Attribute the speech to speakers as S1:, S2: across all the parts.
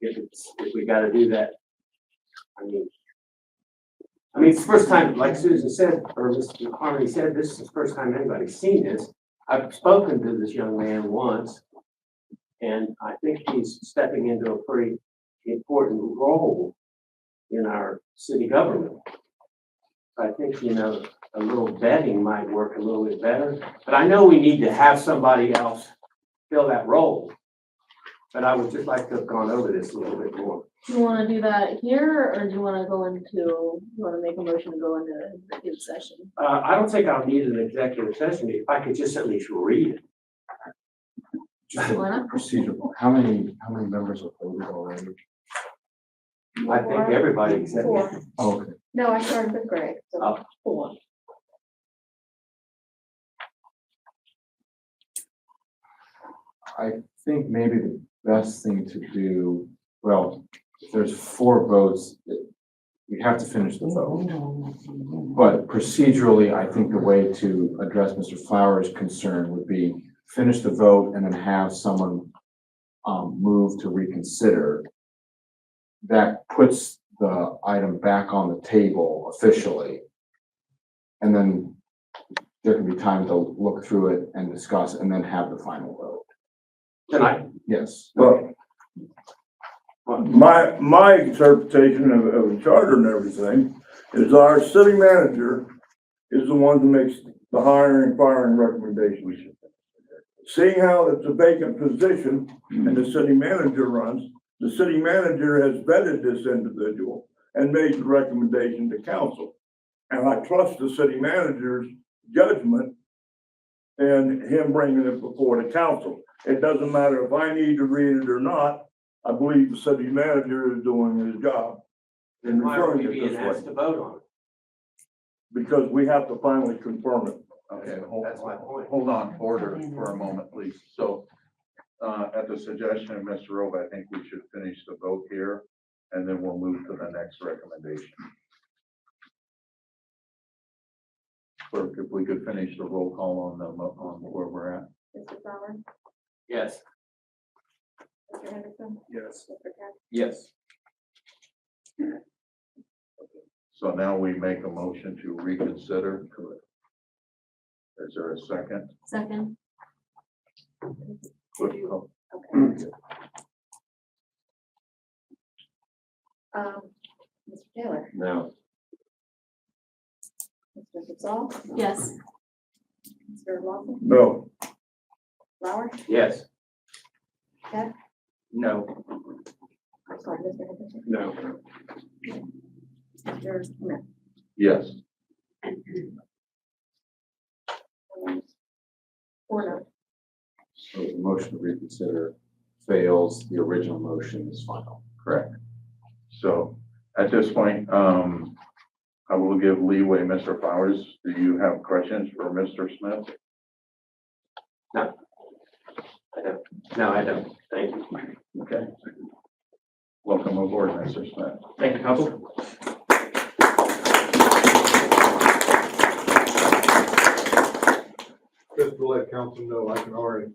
S1: if it's, if we gotta do that. I mean. I mean, it's the first time, like Susan said, or Mr. Harmony said, this is the first time anybody's seen this. I've spoken to this young man once. And I think he's stepping into a pretty important role in our city government. I think, you know, a little vetting might work a little bit better, but I know we need to have somebody else fill that role. But I would just like to have gone over this a little bit more.
S2: Do you wanna do that here, or do you wanna go into, you wanna make a motion to go into executive session?
S1: Uh, I don't think I'll need an executive session if I could just at least read it.
S3: Just a
S2: Why not?
S3: procedural, how many, how many members were voted already?
S1: I think everybody except.
S4: Four.
S3: Oh, Okay,
S4: No, I started with Greg, so
S1: Oh.
S4: four.
S3: I think maybe the best thing to do, well, if there's four votes, it- we have to finish the vote. But procedurally, I think the way to address Mr. Flowers' concern would be finish the vote and then have someone um, move to reconsider. That puts the item back on the table officially. And then there can be time to look through it and discuss and then have the final vote.
S1: Tonight,
S3: Yes.
S5: Well, my, my interpretation of, of the charter and everything is our city manager is the one that makes the hiring and firing recommendations. Seeing how it's a vacant position and the city manager runs, the city manager has vetted this individual and made the recommendation to council. And I trust the city manager's judgment and him bringing it before the council. It doesn't matter if I need to read it or not, I believe the city manager is doing his job
S1: then why are we
S5: Referring it
S1: being
S5: this
S1: asked to vote on it?
S5: because we have to finally confirm it.
S6: Okay, hold,
S1: That's my point.
S6: hold on, order for a moment, please. So, uh, at the suggestion of Mr. Robe, I think we should finish the vote here, and then we'll move to the next recommendation. Clerk, if we could finish the roll call on the, mo- on where we're at.
S4: Mr. Flower,
S1: Yes.
S4: Mr. Henderson,
S1: Yes.
S4: Mr. Katz,
S1: Yes.
S6: So now we make a motion to reconsider. Is there a second?
S2: Second.
S6: Clerk, call.
S1: Hmm.
S4: okay. Um, Mr. Taylor,
S6: No.
S4: Mr. Gasol,
S2: Yes.
S4: Mr. Lawson,
S5: No,
S4: Flower,
S1: Yes.
S4: Yes.
S1: No,
S4: I'm sorry, Mr. Henderson,
S1: no.
S4: Mr. Smith.
S6: Yes.
S4: um, Four no.
S3: So the motion to reconsider fails, the original motion is final.
S6: Correct. So at this point, um, I will give leeway, Mr. Flowers. Do you have questions for Mr. Smith?
S1: I don't. No, I don't. Thank you.
S6: Okay. Welcome aboard, Mr. Smith.
S1: Thank you, council.
S7: just to let council know, I can already,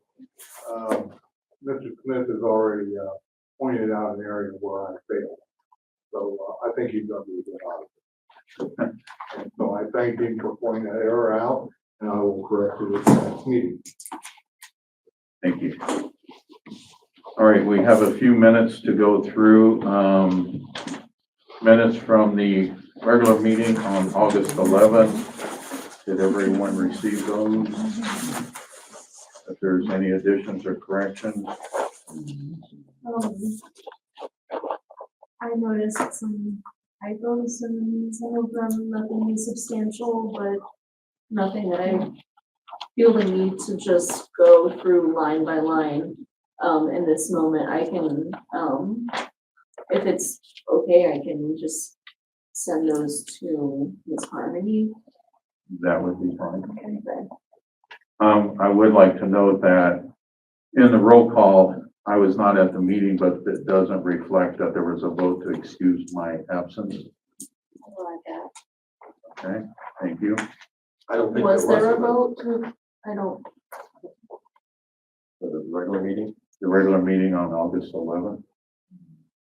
S7: um, Mr. Smith has already, uh, pointed out an area where I failed. So, uh, I think he's done a good job. So I thank him for pointing that error out, and I will correct it at the next meeting.
S6: Thank you. All right, we have a few minutes to go through, um, minutes from the regular meeting on August eleventh. Did everyone receive those? If there's any additions or corrections,
S2: Um, I noticed some typos and some of them nothing substantial, but nothing that I feel the need to just go through line by line. Um, in this moment, I can, um, if it's okay, I can just send those to Ms. Harmony.
S6: that would be fine.
S2: Okay.
S6: Um, I would like to note that in the roll call, I was not at the meeting, but it doesn't reflect that there was a vote to excuse my absence.
S4: I like that.
S6: Okay, thank you.
S1: I don't think there was.
S2: Was there a vote? to- I don't,
S3: For the regular meeting?
S6: The regular meeting on August eleventh.